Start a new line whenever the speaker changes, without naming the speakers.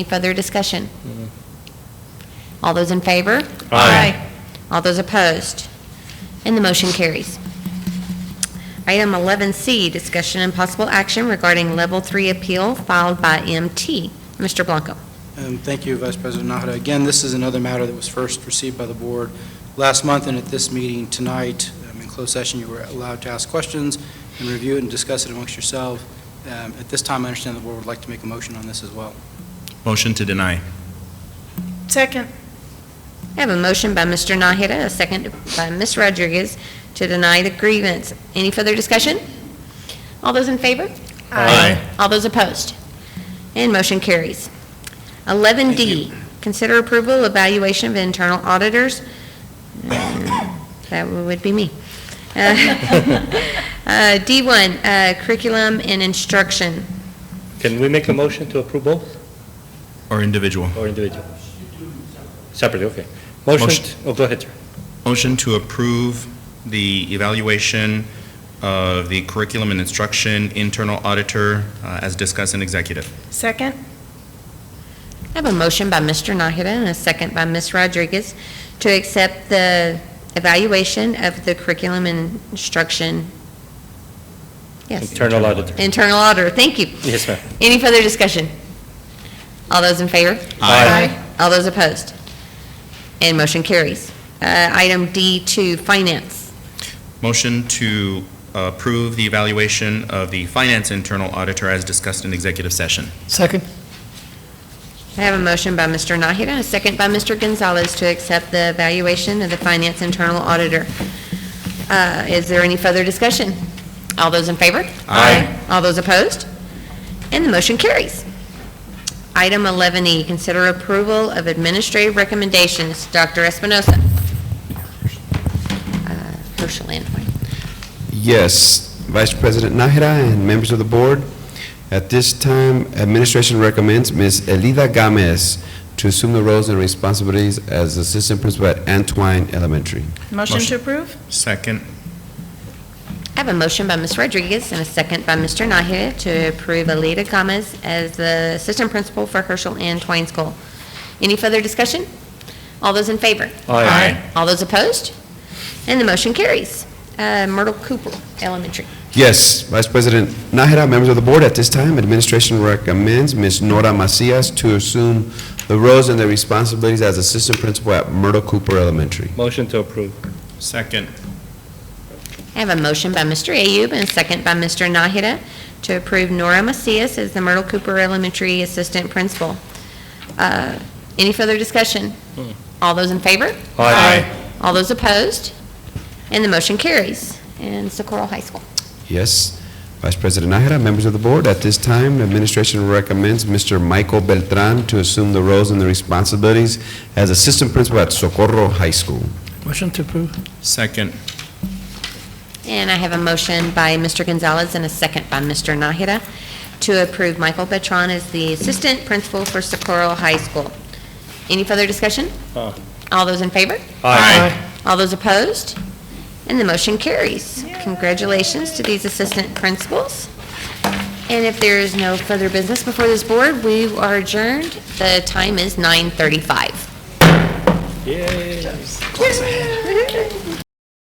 Any further discussion? All those in favor?
Aye.
All those opposed? And the motion carries. Item 11C, discussion and possible action regarding Level 3 appeal filed by MT. Mr. Blanco.
Um, Thank you, Vice President Nahara. Again, this is another matter that was first received by the board last month, and at this meeting tonight, um, in closed session, you were allowed to ask questions and review it and discuss it amongst yourself. Um, At this time, I understand the board would like to make a motion on this as well.
Motion to deny.
Second.
I have a motion by Mr. Nahara, a second by Ms. Rodriguez to deny the grievance. Any further discussion? All those in favor?
Aye.
All those opposed? And motion carries. 11D, consider approval evaluation of internal auditors. That would be me. Uh, uh, D1, uh, curriculum and instruction.
Can we make a motion to approve both
Or individual.
or individual? Separately, okay. Motion,
Motion.
oh, go ahead, sir.
Motion to approve the evaluation of the curriculum and instruction internal auditor uh, as discussed in executive.
Second.
I have a motion by Mr. Nahara and a second by Ms. Rodriguez to accept the evaluation of the curriculum and instruction. Yes,
Internal auditor.
internal auditor, thank you.
Yes, ma'am.
Any further discussion? All those in favor?
Aye.
All those opposed? And motion carries. Uh, Item D2, Finance.
Motion to approve the evaluation of the finance internal auditor as discussed in executive session.
Second.
I have a motion by Mr. Nahara, a second by Mr. Gonzalez to accept the evaluation of the Finance Internal Auditor. Uh, Is there any further discussion? All those in favor?
Aye.
All those opposed? And the motion carries. Item 11E, consider approval of administrative recommendations. Dr. Espinoza. Uh, Herschel and White.
Yes, Vice President Nájera and members of the board, at this time, administration recommends Ms. Elida Gomez to assume the roles and responsibilities as assistant principal at Antoine Elementary.
Motion
Motion.
to approve?
Second.
I have a motion by Ms. Rodriguez and a second by Mr. Nahara to approve Alita Gomez as the assistant principal for Herschel and Twain School. Any further discussion? All those in favor?
Aye.
All those opposed? And the motion carries. Uh, Myrtle Cooper Elementary.
Yes, Vice President Nájera, members of the board, at this time, administration recommends Ms. Nora Macias to assume the roles and the responsibilities as assistant principal at Myrtle Cooper Elementary.
Motion to approve.
Second.
I have a motion by Mr. Ayub and a second by Mr. Nahara to approve Nora Macias as the Myrtle Cooper Elementary Assistant Principal. Uh, Any further discussion? All those in favor?
Hmm. Aye.
All those opposed? And the motion carries. And Socorro High School.
Yes. Vice President Nájera, members of the board, at this time, the administration recommends Mr. Michael Beltran to assume the roles and the responsibilities as assistant principal at Socorro High School.
Motion to approve.
Second.
And I have a motion by Mr. Gonzalez and a second by Mr. Nahara to approve Michael Betron as the Assistant Principal for Socorro High School. Any further discussion?
Aye.
All those in favor?
Aye.
All those opposed? And the motion carries. Congratulations to these assistant principals. And if there is no further business before this board, we are adjourned. The time is 9:35.
Yay.